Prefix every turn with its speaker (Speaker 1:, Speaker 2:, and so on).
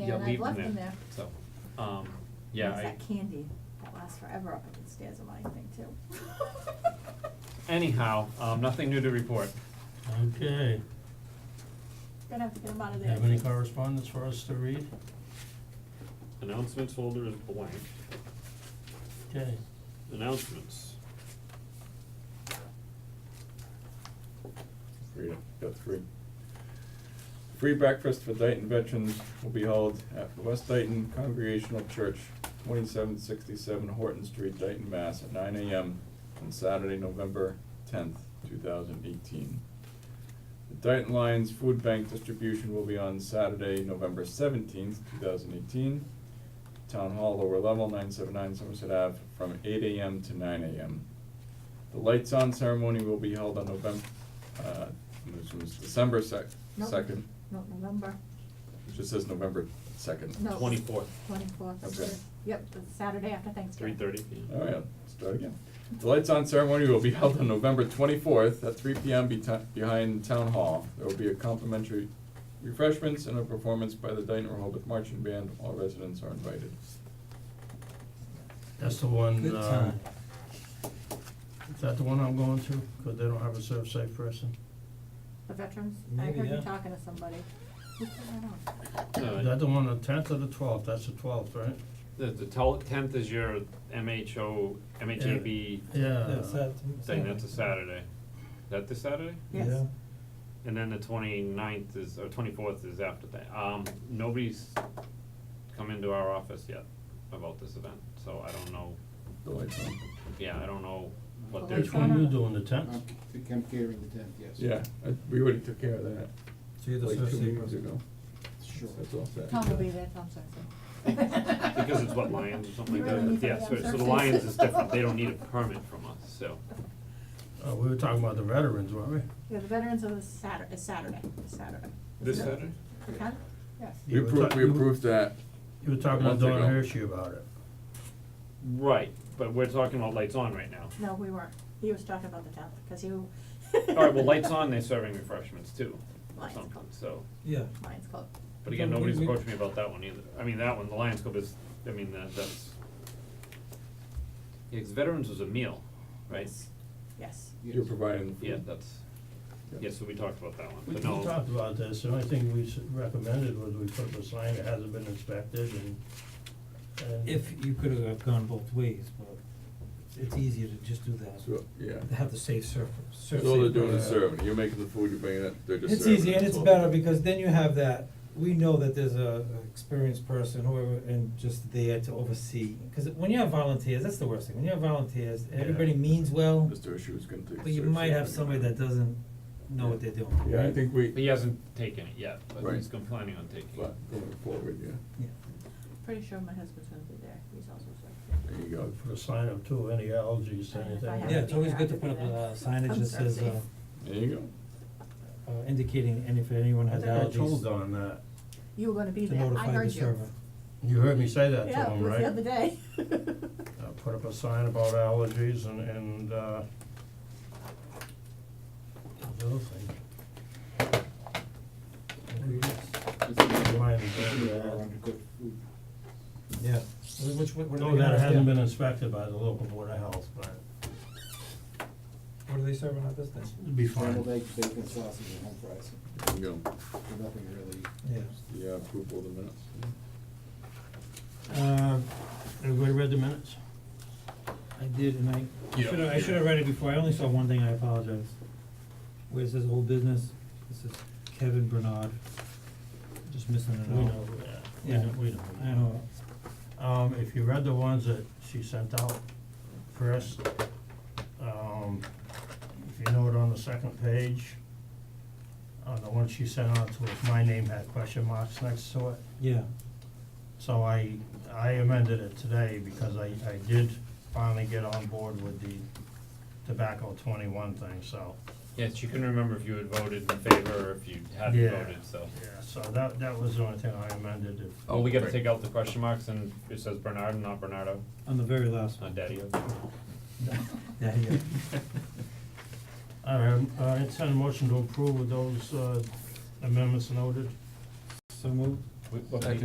Speaker 1: Yeah,
Speaker 2: and I've
Speaker 1: leave
Speaker 2: left
Speaker 1: them
Speaker 2: them
Speaker 1: there.
Speaker 2: there.
Speaker 1: So, um, yeah,
Speaker 2: There's
Speaker 1: I,
Speaker 2: that candy that lasts forever up at the stairs of my thing too.
Speaker 1: anyhow, um, nothing new to report.
Speaker 3: Okay,
Speaker 2: Gonna have to get them out of there.
Speaker 3: have any correspondence for us to read?
Speaker 1: Announcements folder is blank.
Speaker 3: Okay,
Speaker 1: Announcements.
Speaker 4: Read it, got three. Free breakfast for Dayton veterans will be held at the West Dayton Congregational Church, twenty-seven sixty-seven Horton Street, Dayton, Mass, at nine AM on Saturday, November tenth, two thousand eighteen. The Dayton Lions Food Bank distribution will be on Saturday, November seventeenth, two thousand eighteen. Town Hall, lower level, nine seven nine Somerset Ave, from eight AM to nine AM. The lights on ceremony will be held on November, uh, which was December sec-
Speaker 2: Nope.
Speaker 4: second,
Speaker 2: No, November,
Speaker 4: it just says November second.
Speaker 2: no.
Speaker 1: Twenty-fourth,
Speaker 2: Twenty-fourth.
Speaker 4: Okay.
Speaker 2: Yep, the Saturday after
Speaker 1: three
Speaker 2: Thanksgiving.
Speaker 1: thirty.
Speaker 4: Oh yeah, start again. The lights on ceremony will be held on November twenty-fourth at three P M beti- behind Town Hall. There will be a complimentary refreshments and a performance by the Dayton Rehoboth Marching Band, all residents are invited.
Speaker 3: that's the one,
Speaker 5: Good
Speaker 3: uh,
Speaker 5: time.
Speaker 3: is that the one I'm going to? Cause they don't have a serve safe person.
Speaker 2: The veterans, I
Speaker 5: Maybe,
Speaker 2: heard you
Speaker 5: yeah.
Speaker 2: talking to somebody. Who put that on?
Speaker 3: Is that the one, the tenth or the twelfth? That's the twelfth, right?
Speaker 1: Uh, The, the tel- tenth is your MHO, MHAB
Speaker 4: Uh,
Speaker 3: Yeah.
Speaker 5: That's that.
Speaker 1: thing, that's a Saturday. Is that this Saturday?
Speaker 2: Yes.
Speaker 5: Yeah.
Speaker 1: And then the twenty-ninth is, or twenty-fourth is after that. Um, nobody's come into our office yet about this event, so I don't know,
Speaker 4: The lights on,
Speaker 1: yeah, I don't know what they're.
Speaker 3: Which one
Speaker 2: Arizona.
Speaker 3: you doing, the tenth?
Speaker 6: I'm I'm carrying the tenth, yes.
Speaker 4: yeah, I- we already took care of that,
Speaker 5: So you're the
Speaker 4: like
Speaker 5: first
Speaker 4: two
Speaker 5: secret.
Speaker 4: meetings ago,
Speaker 6: Sure.
Speaker 4: that's all set.
Speaker 2: Tom will be there, Tom's sorry.
Speaker 1: Because it's what, Lions or something
Speaker 2: You
Speaker 1: like that,
Speaker 2: really
Speaker 1: but yeah,
Speaker 2: need
Speaker 1: so,
Speaker 2: to be
Speaker 1: so
Speaker 2: on
Speaker 1: the
Speaker 2: surface.
Speaker 1: Lions is different, they don't need a permit from us, so.
Speaker 3: Uh, we were talking about the veterans, weren't we?
Speaker 2: Yeah, the veterans of the Saturday, is Saturday, is Saturday.
Speaker 1: This
Speaker 2: Isn't it?
Speaker 1: Saturday?
Speaker 2: The tenth? Yes.
Speaker 4: We
Speaker 3: You were
Speaker 4: approved,
Speaker 3: ta-
Speaker 4: we
Speaker 3: you-
Speaker 4: approved that,
Speaker 3: You were talking to
Speaker 4: Month
Speaker 3: Don
Speaker 4: ago.
Speaker 3: Hershey about it.
Speaker 1: Right, but we're talking about lights on right now.
Speaker 2: No, we weren't. He was talking about the tenth, because you.
Speaker 1: Alright, well, lights on, Oh. they're serving refreshments too, or
Speaker 2: Lions
Speaker 1: something,
Speaker 2: Club,
Speaker 1: so,
Speaker 5: Yeah.
Speaker 2: Lions Club.
Speaker 1: but again,
Speaker 5: But we-
Speaker 1: nobody's
Speaker 5: we-
Speaker 1: approached me about that one either, I mean, that one, the Lions Club is, I mean, that, that's. Yeah, 'cause veterans was a meal, right?
Speaker 2: Yes. Yes.
Speaker 4: you're providing the food.
Speaker 1: Yeah, that's, yeah, so we talked about that one,
Speaker 3: We we
Speaker 1: but no.
Speaker 3: talked about this, the only thing we s- recommended was we put up a sign that hasn't been inspected and, and.
Speaker 5: If you could have gone both ways, but it's easier to just do that.
Speaker 4: So, yeah.
Speaker 5: To Have the safe surf, surf.
Speaker 4: So all they're
Speaker 5: safe
Speaker 4: doing is
Speaker 5: person.
Speaker 4: serving, you're making the food, you're bringing it, they're just
Speaker 5: It's
Speaker 4: serving.
Speaker 5: easy and it's
Speaker 4: all.
Speaker 5: better because then you have that, we know that there's a a experienced person, whoever, and just there to oversee. Cause when you have volunteers, that's the worst thing, when you have volunteers, everybody
Speaker 4: Yeah.
Speaker 5: means well.
Speaker 4: Mr. Ishue's gonna take.
Speaker 5: But you
Speaker 4: serve
Speaker 5: might have
Speaker 4: something.
Speaker 5: somebody that doesn't know what they're doing.
Speaker 4: Yeah, I
Speaker 5: right?
Speaker 4: think
Speaker 1: He
Speaker 4: we,
Speaker 1: hasn't taken it yet, but
Speaker 4: Right.
Speaker 1: he's planning on taking it.
Speaker 4: but going forward, yeah,
Speaker 5: Yeah.
Speaker 2: Pretty sure my husband's gonna be there. He's also serving.
Speaker 4: there you go.
Speaker 3: Put a sign up too, any allergies,
Speaker 2: I don't know Uh, if
Speaker 3: anything.
Speaker 2: I have
Speaker 5: Yeah,
Speaker 2: to
Speaker 5: it's
Speaker 2: be
Speaker 5: always
Speaker 2: there.
Speaker 5: good to
Speaker 2: I
Speaker 5: put
Speaker 2: could
Speaker 5: up
Speaker 2: do
Speaker 5: a
Speaker 2: that.
Speaker 5: signage
Speaker 2: I'm
Speaker 5: that says,
Speaker 2: sorry.
Speaker 5: uh,
Speaker 4: There you go.
Speaker 5: uh, indicating, and if anyone
Speaker 3: I
Speaker 5: has
Speaker 3: think I told
Speaker 5: allergies,
Speaker 3: Don that,
Speaker 2: You were gonna be
Speaker 5: to
Speaker 2: there. I
Speaker 5: notify the
Speaker 2: heard you.
Speaker 5: server.
Speaker 3: you heard me say that to
Speaker 2: Yeah, it
Speaker 3: him,
Speaker 2: was
Speaker 3: right?
Speaker 2: the other day.
Speaker 3: Uh, put up a sign about allergies and, and, uh, the other thing, Lions, uh,
Speaker 6: Good food.
Speaker 5: Yeah. Wh- Which, what, what do they
Speaker 3: no, that
Speaker 5: have?
Speaker 3: hasn't
Speaker 5: Yeah.
Speaker 3: been inspected by the local board of health, but
Speaker 5: What are they serving at this thing?
Speaker 3: it'd be fine.
Speaker 6: Scrambled eggs, bacon, sausage, and home fries,
Speaker 4: There you go.
Speaker 6: There's nothing really.
Speaker 5: Yeah.
Speaker 4: Yeah, approval of the minutes.
Speaker 5: Um, everybody read the minutes? I did, and I
Speaker 4: Yeah.
Speaker 5: should've, I should've read it before, I only saw one thing, I apologize. Where it says old business, this is Kevin Bernard, just missing an O.
Speaker 3: We know, yeah, we
Speaker 5: Yeah.
Speaker 3: know, we know.
Speaker 5: I know,
Speaker 3: Um, if you read the ones that she sent out first, um, if you note on the second page, on the one she sent out to us, my name had question marks next to it.
Speaker 5: yeah,
Speaker 3: So I, I amended it today because I, I did finally get on board with the tobacco twenty-one thing, so.
Speaker 1: Yes, you can remember if you had voted in favor or if you hadn't
Speaker 3: Yeah.
Speaker 1: voted, so.
Speaker 3: Yeah, so that, that was the only thing I amended if.
Speaker 1: Oh, we gotta
Speaker 4: Right.
Speaker 1: take out the question marks and it says Bernard, not Bernardo,
Speaker 5: on the very last
Speaker 1: not
Speaker 5: one.
Speaker 1: Daddy.
Speaker 5: Yeah, yeah.
Speaker 3: All right, uh, I intend a motion to approve with those, uh, amendments noted.
Speaker 5: So moved.
Speaker 1: What page?